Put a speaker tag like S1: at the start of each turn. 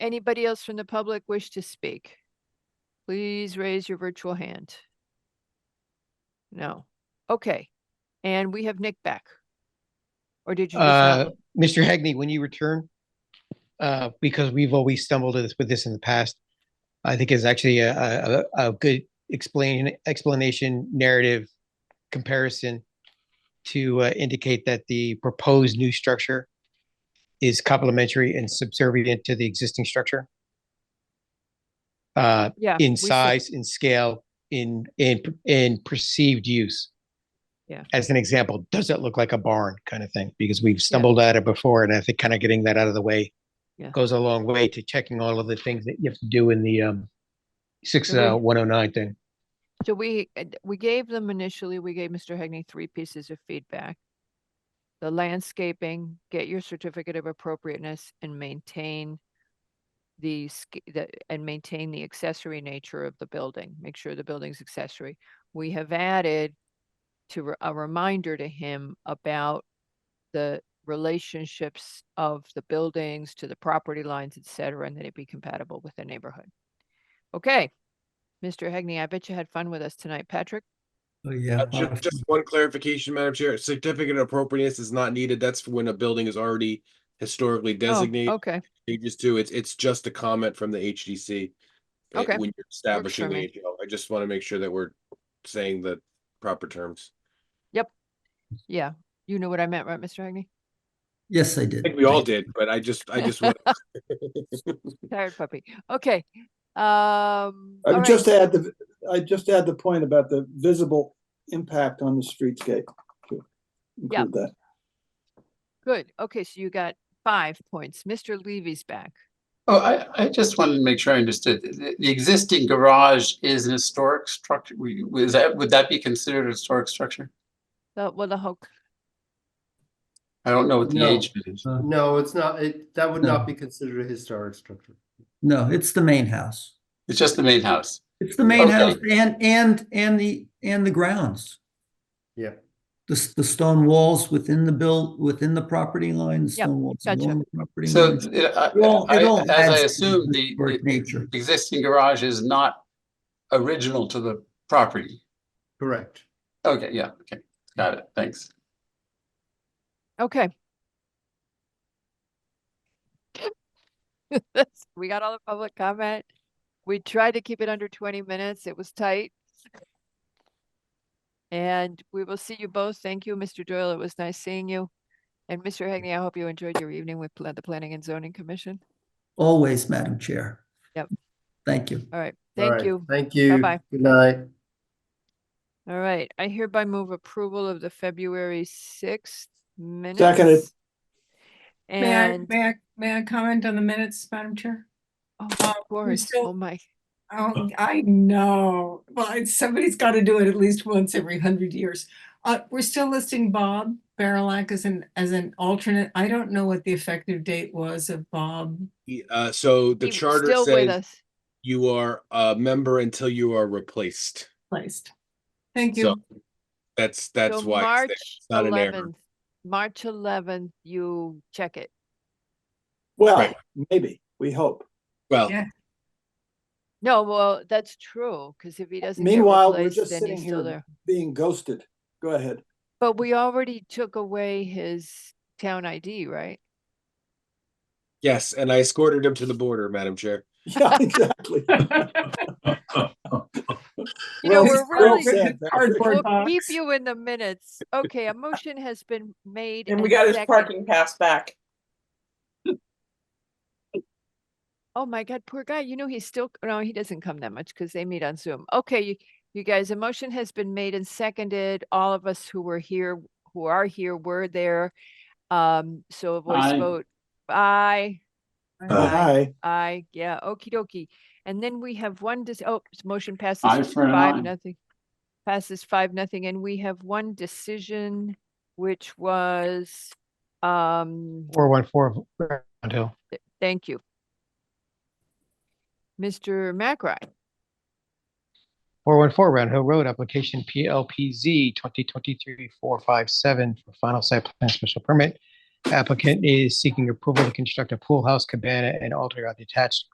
S1: Anybody else from the public wish to speak? Please raise your virtual hand. No. Okay. And we have Nick back. Or did you? just
S2: Uh,
S1: not look?
S2: Mr. Hegney, when you return, uh, because we've always stumbled at this- with this in the past, I think is actually a, a, a a good explain, explanation, narrative comparison to uh, indicate that the proposed new structure is complementary and subservient to the existing structure. Uh,
S1: Yeah. we
S2: in
S1: see.
S2: size, in scale, in, in, in perceived use.
S1: Yeah.
S2: As an example, does it look like a barn kind of thing? Because we've stumbled at it before and I think kind of getting that out of the way
S1: Yeah.
S2: goes a long way to checking all of the things that you have to do in the, um, six,
S1: Agreed.
S2: uh, one oh nine thing.
S1: So we, uh, we gave them initially, we gave Mr. Hegney three pieces of feedback. The landscaping, get your certificate of appropriateness and maintain the, sca- the, and maintain the accessory nature of the building. Make sure the building's accessory. We have added to re- a reminder to him about the relationships of the buildings to the property lines, et cetera, and that it be compatible with the neighborhood. Okay. Mr. Hegney, I bet you had fun with us tonight, Patrick.
S3: Oh, yeah.
S4: Uh, ju- Just, one clarification, Madam Chair, certificate of appropriateness is not needed. That's for when a building is already historically
S1: Oh,
S4: designated.
S1: Okay,
S4: Changes to, it's, it's just a comment from the HDC. uh,
S1: Okay.
S4: When you're establishing
S1: for
S4: the
S1: me.
S4: AGL. I just want to make sure that we're saying the proper terms.
S1: yeah. You knew what I meant, right, Mr. Hegney?
S3: Yes, I
S4: I
S3: did.
S4: think we all did, but I just, I just want.
S1: Tired puppy. Okay. Um.
S5: I
S1: all
S5: would
S1: right,
S5: just add
S1: so-
S5: the, I just add the point about the visible impact on the streetscape. to
S1: Yeah.
S5: Include that.
S1: Good. Okay, so you got five points. Mr. Levy's back.
S6: Oh, I, I just wanted to make sure I understood. The, the existing garage is an historic structure. We- Was that, would that be considered a historic structure?
S1: The, well, the whole,
S6: I don't know what the
S7: No.
S6: age of it is.
S3: Uh,
S7: No, it's not, it, that would
S3: No.
S7: not be considered a historic structure.
S3: No, it's the main house.
S6: It's just the main house.
S3: It's the main
S6: Okay.
S3: house and, and, and the, and the grounds.
S7: Yeah.
S3: The, s- the stone walls within the build, within the property line, the
S1: Yep,
S3: stone walls
S1: gotcha.
S3: along the property
S6: So
S3: line.
S6: th- it- I-
S3: It all- it
S6: I-
S3: all
S6: as
S3: adds
S6: I
S3: to
S6: assume, the
S3: historic
S6: the
S3: Nature.
S6: existing garage is not original to the property.
S7: Correct.
S6: Okay, yeah, okay, got it, thanks.
S1: okay. That's- We got all the public comment. We tried to keep it under twenty minutes. It was tight. And we will see you both. Thank you, Mr. Doyle. It was nice seeing you. And Mr. Hegney, I hope you enjoyed your evening with pla- the Planning and Zoning Commission.
S3: Always, Madam Chair.
S1: Yep.
S3: Thank you.
S1: All right,
S7: All
S1: thank
S7: right.
S1: you.
S7: Thank you.
S1: Bye-bye.
S7: Good night.
S1: All right, I hereby move approval of the February sixth minutes.
S8: May I,
S1: And,
S8: may I, may I comment on the minutes, Madam Chair?
S1: oh,
S8: uh,
S1: of course,
S8: still-
S1: oh my,
S8: Oh, I know. Well, it's- somebody's got to do it at least once every hundred years. Uh, we're still listing Bob Barilak as an, as an alternate. I don't know what the effective date was of Bob.
S4: Uh, so the
S1: He-
S4: charter
S1: still with
S4: says
S1: us.
S4: you are a member until you are replaced.
S8: Placed.
S4: So
S8: Thank you.
S4: that's,
S1: So
S4: that's why. it's there.
S1: March
S4: not an error.
S1: 11th March eleventh, you check it.
S5: Well,
S4: Right.
S5: maybe, we hope.
S4: Well,
S8: Yeah.
S1: No, well, that's true, because if he doesn't get
S5: Meanwhile, we're
S1: replaced,
S5: just
S1: then
S5: sitting
S1: he's still there.
S5: here being ghosted. Go ahead.
S1: But we already took away his town ID, right?
S4: yes, and I escorted him to the border, Madam Chair.
S5: Yeah, exactly.
S8: Uh,
S1: You know,
S5: Well
S1: we're
S5: said, well
S1: really,
S5: said, Patrick.
S8: Cardboard
S1: we'll keep
S8: box.
S1: you in the minutes. Okay, a motion has been made.
S9: And we got his
S1: seconded.
S9: parking pass back.
S1: Oh my God, poor guy. You know, he's still, no, he doesn't come that much because they meet on Zoom. Okay, you, you guys, a motion has been made and seconded. All of us who were here, who are here, were there. Um, so a voice
S6: Aye.
S1: vote. Aye,
S5: Hi.
S1: aye, yeah, okie dokie. And then we have one, dis- oh, s- motion passes
S6: Aye for an aye.
S1: five, nothing. Passes five, nothing. And we have one decision, which was, um,
S2: Four one four Round Hill.
S1: thank you. Mr. McRae.
S2: Four one four Round Hill Road, application PLPZ twenty twenty-three four five seven for final site plan special permit Applicant is seeking approval to construct a pool house cabana and alter a detached